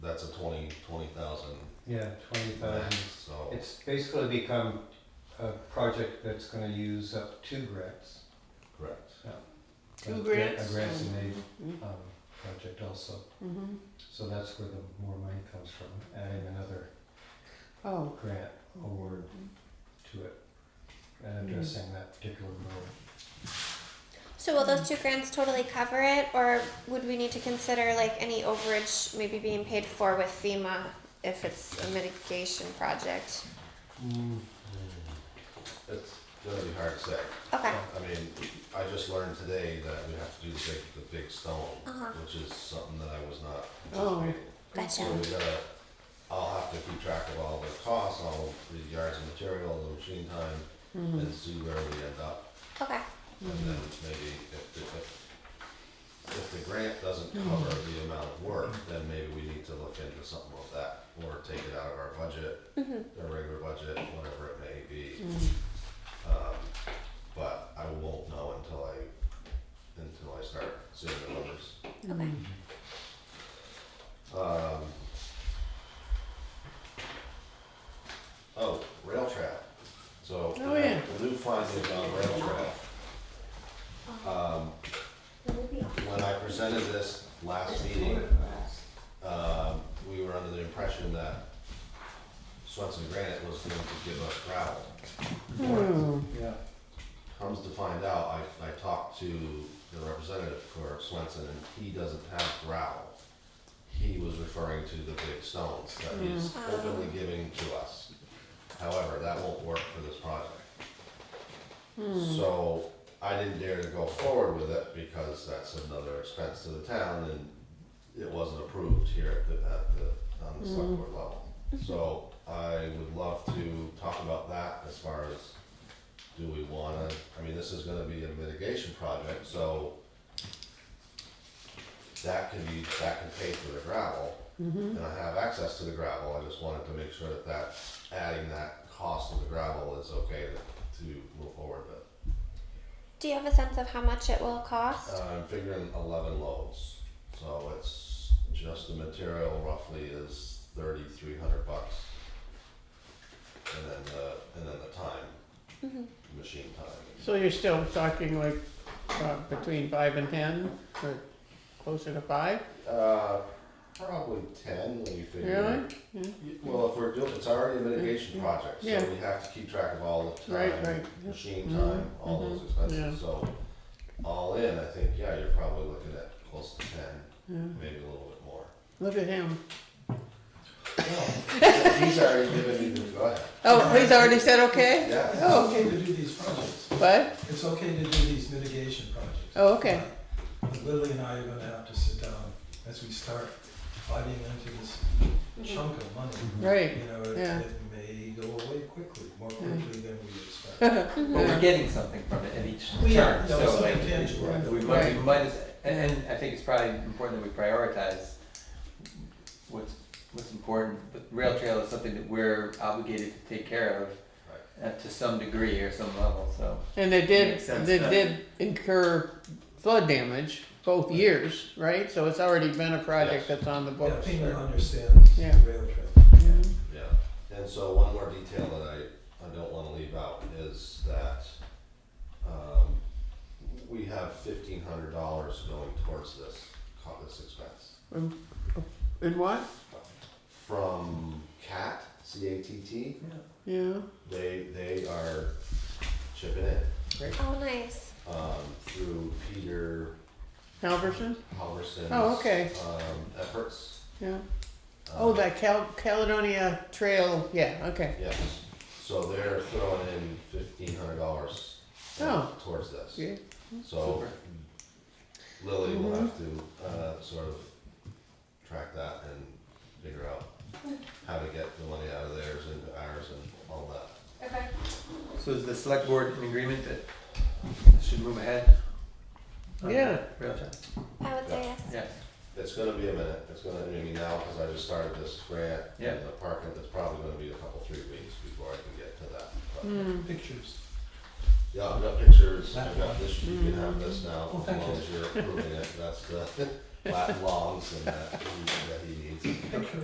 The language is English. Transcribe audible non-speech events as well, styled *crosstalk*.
that's a twenty, twenty thousand Yeah, twenty max, thousand. so, Uh, It's basically become a project that's gonna use up two grants. correct. A- Two a- grants. A grants and aid, Mm-hmm. um, project also. So that's where the more money comes from, adding another Oh, grant award to it and Hmm. addressing that particular road. So will Mm. those two grants totally cover it, or would we need to consider like any overage maybe being paid for with FEMA if it's a mitigation project? It's gonna be hard to say. Okay. I mean, I just learned today that we have to do the big, the big stone, Uh-huh. which is something that I was not Oh. anticipating. Gotcha. So we gotta, I'll have to keep track of all the costs, all the yards of material, the machine time, Mm-hmm. and see where we end up. Okay. And then maybe if, the- if, if the grant doesn't cover the amount of work, then maybe we need to look into something like that, or take it out of our budget, our regular budget, whatever it may be. Mm-hmm. Um, but I won't know until I, until I start seeing the numbers. Okay. Um, oh, rail trap. So Oh, yeah. the new findings on rail trap. Um, when I presented this last meeting, um, we were under the impression that Swenson Granite was going to give us gravel. Yeah. Comes to find out, I, I talked to the representative for Swenson and he doesn't have gravel. He was referring to the big stones that he's Mm. openly giving to us. However, that won't work for this project. So I didn't dare to go forward with it because that's another expense to the town and it wasn't approved here at the, at the, on the select board level. So I would love to talk about that as far as, do we wanna, I mean, this is gonna be a mitigation project, so that can be, that can pay for the gravel, and I have access to the gravel, I just wanted to make sure that that, adding that cost of the gravel is okay to, to move forward with. Do you have a sense of how much it will cost? Uh, I'm figuring eleven loads, so it's just the material roughly is thirty-three hundred bucks. And then the, and then the time, Mm-hmm. machine time. so you're still talking like uh, between five and ten, or closer to five? Uh, probably ten when you figure. Really? Yeah. Y- Well, if we're doing, it's already a mitigation project, Yeah. so we have to keep track of all the Right, time, right. machine Mhm, time, all mhm, those expenses, yeah. so. All in, I think, yeah, you're probably looking at close to ten, Yeah. maybe a little bit more. *laughs* Look at him. He's already given me the, go ahead. Oh, he's already said okay? Yeah. Oh, It's okay to do these projects. What? It's okay to do these mitigation projects. Oh, okay. But Lily and I are gonna have to sit down as we start biting into this Mm-hmm. chunk of money. Right. *laughs* You know, it, Mm-hmm. Yeah. Mm-hmm. it may go away quickly, more quickly than we expect. Mm-hmm. But we're getting something from it at each We are, turn, that was so like, something tangible. we might, we might, as- and, and I think it's probably important that we prioritize what's, what's important, but rail trail is something that we're obligated to take care of uh, to some degree or some level, so. And they did, Makes sense, they doesn't did incur flood damage both years, right? So it's already been a Yes. project that's on the Yeah, books. FEMA understands the Yeah. rail trail. Mhm. Yeah, and so one more detail that I, I don't wanna leave out is that, um, we have fifteen hundred dollars going towards this, co- this expense. And what? From CAT, C A T T, Yeah. they, they are chipping in, Oh, nice. um, through Peter Halverson? Halverson's. Oh, okay. Um, efforts. Yeah. um, Oh, that Cal- Caledonia Trail, yeah, okay. Yes, so they're throwing in fifteen hundred dollars Oh. towards this. Yeah. Mm-hmm. So Super. Lily will have to uh, sort of track that and figure out how to get the money out of theirs into ours and all that. Okay. So is the select board in agreement that it should move ahead? on the Yeah. Rail trail, I would say yes. yeah, It's gonna be a minute, it's gonna, I mean, now, cause I just started this grant Yeah. and the parking, it's probably gonna be a couple, three weeks before I can get to that. but- Pictures. Yeah, I've got pictures, I've got this, you can have this now, Well, as thank long you. as you're approving it, that's the, *laughs* flat longs and that, that he needs. Picture